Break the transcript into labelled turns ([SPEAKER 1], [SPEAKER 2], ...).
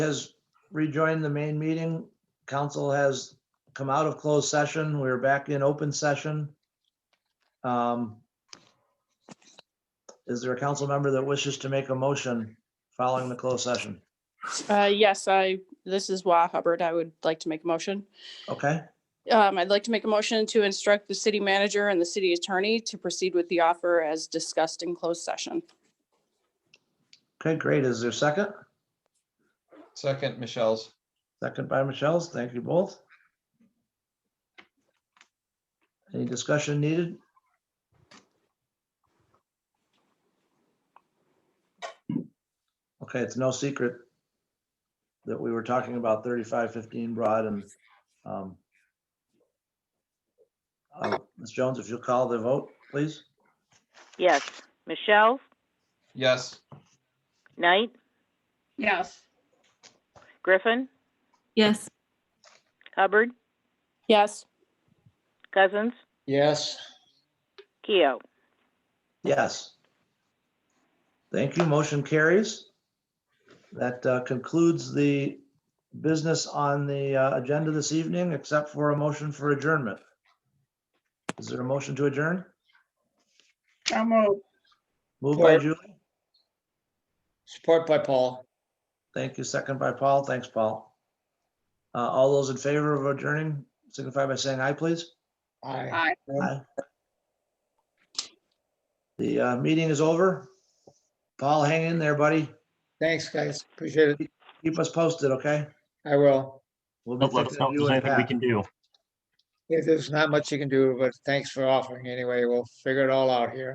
[SPEAKER 1] has rejoined the main meeting. Council has come out of closed session. We're back in open session. Um, Is there a council member that wishes to make a motion following the closed session?
[SPEAKER 2] Uh, yes, I, this is Wah Hubbard. I would like to make a motion.
[SPEAKER 1] Okay,
[SPEAKER 2] Um, I'd like to make a motion to instruct the city manager and the city attorney to proceed with the offer as discussed in closed session.
[SPEAKER 1] okay, great. Is there a second?
[SPEAKER 3] Second, Michelle's.
[SPEAKER 1] Second by Michelle's. Thank you both. Any discussion needed? Okay, it's no secret that we were talking about thirty-five fifteen broad and um, uh, Ms. Jones, if you'll call the vote, please.
[SPEAKER 4] Yes. Michelle,
[SPEAKER 3] Yes,
[SPEAKER 4] Knight,
[SPEAKER 5] Yes.
[SPEAKER 4] Griffin,
[SPEAKER 5] Yes.
[SPEAKER 4] Hubbard,
[SPEAKER 2] Yes,
[SPEAKER 4] Cousins,
[SPEAKER 6] Yes,
[SPEAKER 4] Keo.
[SPEAKER 1] Yes. Thank you. Motion carries. That uh, concludes the business on the uh, agenda this evening, except for a motion for adjournment. Is there a motion to adjourn?
[SPEAKER 5] So moved.
[SPEAKER 1] Moved by
[SPEAKER 6] Support.
[SPEAKER 1] Julie.
[SPEAKER 6] support by Paul.
[SPEAKER 1] Thank you. Second by Paul. Thanks, Paul. Uh, All those in favor of adjourning signify by saying aye, please.
[SPEAKER 6] Aye.
[SPEAKER 5] Aye.
[SPEAKER 1] The uh, meeting is over. Paul, hang in there, buddy.
[SPEAKER 6] Thanks, guys. Appreciate it.
[SPEAKER 1] Keep us posted, okay?
[SPEAKER 6] I will.
[SPEAKER 1] We'll be
[SPEAKER 7] Don't let us
[SPEAKER 1] thinking of
[SPEAKER 7] know
[SPEAKER 1] you
[SPEAKER 7] if there's
[SPEAKER 1] and
[SPEAKER 7] anything we
[SPEAKER 1] Pat.
[SPEAKER 7] can do.
[SPEAKER 6] Yeah, There's not much you can do, but thanks for offering anyway. We'll figure it all out here.